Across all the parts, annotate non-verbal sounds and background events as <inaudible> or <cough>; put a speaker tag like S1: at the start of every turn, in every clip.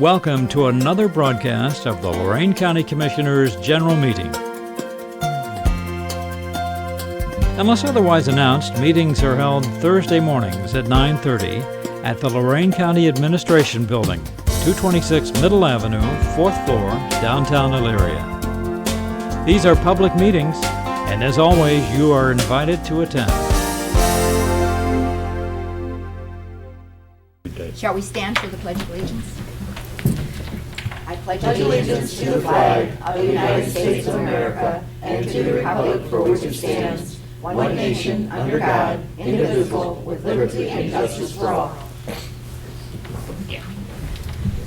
S1: Welcome to another broadcast of the Lorraine County Commissioners' General Meeting. Unless otherwise announced, meetings are held Thursday mornings at 9:30 at the Lorraine County Administration Building, 226 Middle Avenue, 4th floor, downtown Elyria. These are public meetings, and as always, you are invited to attend.
S2: Shall we stand for the Pledge of Allegiance? I pledge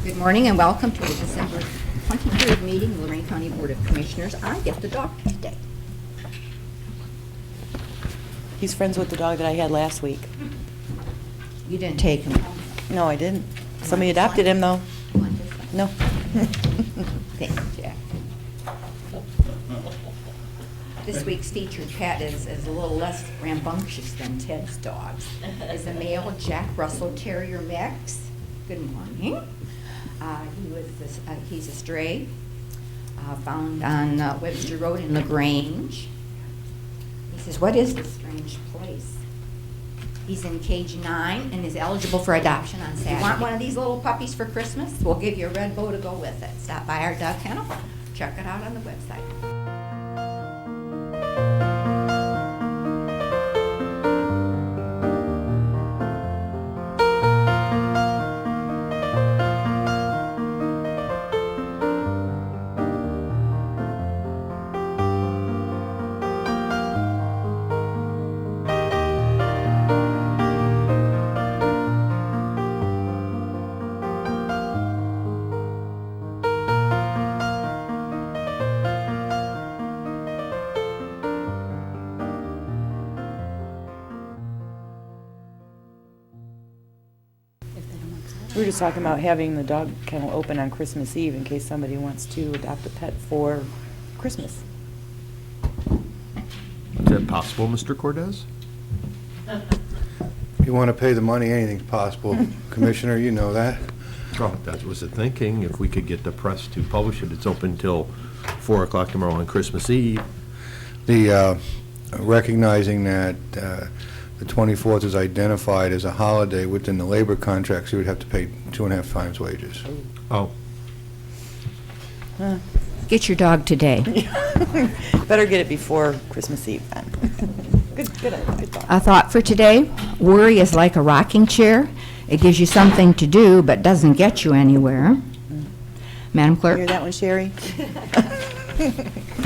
S2: Good morning and welcome to the December 23rd meeting of Lorraine County Board of Commissioners. I get the doctor today.
S3: He's friends with the dog that I had last week.
S2: You didn't take him.
S3: No, I didn't. Somebody adopted him, though. No.
S2: Thank you, Jack. This week's featured pet is, is a little less rambunctious than Ted's dogs. Is a male Jack Russell Terrier mix. Good morning. Uh, he was, this- uh, he's a stray, uh, found on uh, Webster Road in LaGrange. He says, what is this strange place? He's in cage nine and is eligible for adoption on Saturday. Want one of these little puppies for Christmas? We'll give you a red bow to go with it. Stop by our dog kennel, check it out on the website.
S3: We were just talking about having the dog kennel open on Christmas Eve in case somebody wants to adopt a pet for Christmas.
S4: Is that possible, Mr. Cordez?
S5: You want to pay the money, anything's possible. Commissioner, you know that.
S4: Oh, that was the thinking. If we could get the press to publish it, it's open till 4 o'clock tomorrow on Christmas Eve.
S5: The, uh, recognizing that uh, the 24th is identified as a holiday within the labor contracts, you would have to pay two and a half times wages.
S4: Oh,
S2: Get your dog today.
S3: Better get it before Christmas Eve then. <laughs> Good, good idea.
S2: A thought for today, worry is like a rocking chair. It gives you something to do, but doesn't get you anywhere. Madam Clerk?
S3: Hear that
S2: <laughs>
S3: one, Sherry?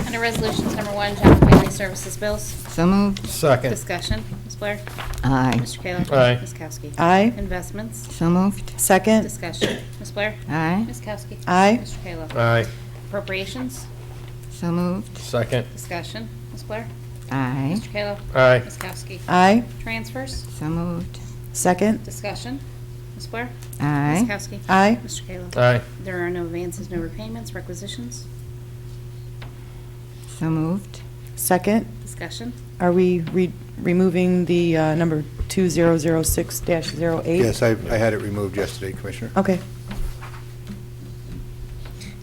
S6: Under Resolutions Number One, Job and Family Services Bills.
S2: So moved.
S5: Second.
S6: Discussion. Ms. Blair?
S2: Aye.
S6: Mr. Kayla?
S4: Aye.
S6: Ms. Kowski?
S3: Aye.
S6: Investments?
S2: So moved.
S3: Second?
S6: Discussion. Ms. Blair?
S2: Aye.
S6: Ms. Kowski?
S3: Aye.
S6: Mr. Kayla?
S4: aye.
S6: Appropriations?
S2: So moved.
S4: Second.
S6: Discussion. Ms. Blair?
S3: Hmm?
S2: Aye.
S6: Mr. Kayla?
S4: Aye.
S6: Ms. Kowski?
S3: Aye.
S6: Transfers?
S2: So moved.
S3: Second?
S6: Discussion. Ms. Blair? Ms.
S2: Aye.
S6: Kowski?
S3: Aye.
S6: Mr. Kayla?
S4: Aye.
S6: There are no advances, no repayments, requisitions.
S2: So moved.
S3: Second?
S6: Discussion.
S3: Are we re- removing the uh, number 2006-08?
S5: Yes, I I had it removed yesterday, Commissioner.
S3: Okay.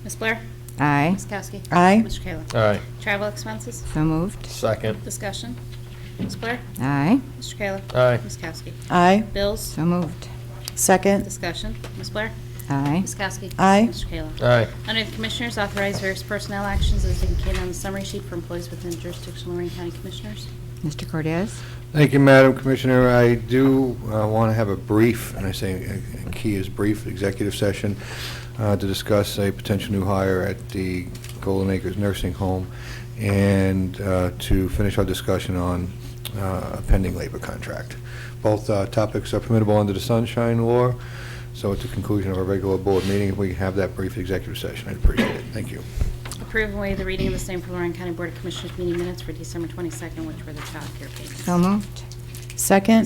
S6: Ms. Blair?
S2: Aye.
S6: Ms. Kowski?
S3: Aye.
S6: Mr. Kayla?
S4: Aye.
S6: Travel expenses?
S2: So moved.
S4: Second.
S6: Discussion. Ms. Blair?
S2: Aye.
S6: Mr. Kayla?
S4: Aye.
S6: Ms. Kowski?
S3: Aye.
S6: Bills?
S2: So moved.
S3: Second?
S6: Discussion. Ms. Blair?
S2: Aye.
S6: Ms. Kowski?
S3: Aye.
S6: Mr. Kayla?
S4: Aye.
S6: Under the Commissioners, authorize various personnel actions as indicated on the summary sheet for employees within jurisdiction of Lorraine County Commissioners.
S2: Mr. Cordez?
S5: Thank you, Madam Commissioner. I do want to have a brief, and I say uh, key is brief, executive session uh, to discuss a potential new hire at the Golden Acres Nursing Home and uh, to finish our discussion on uh, a pending labor contract. Both uh, topics are permissible under the Sunshine Law, so at the conclusion of our regular board meeting, if we have that brief executive session, I'd appreciate it. Thank you.
S6: Approve and waive the reading of the same for Lorraine County Board of Commissioners meeting minutes for December 22nd, which were the child care payments.
S2: So moved.
S3: Second?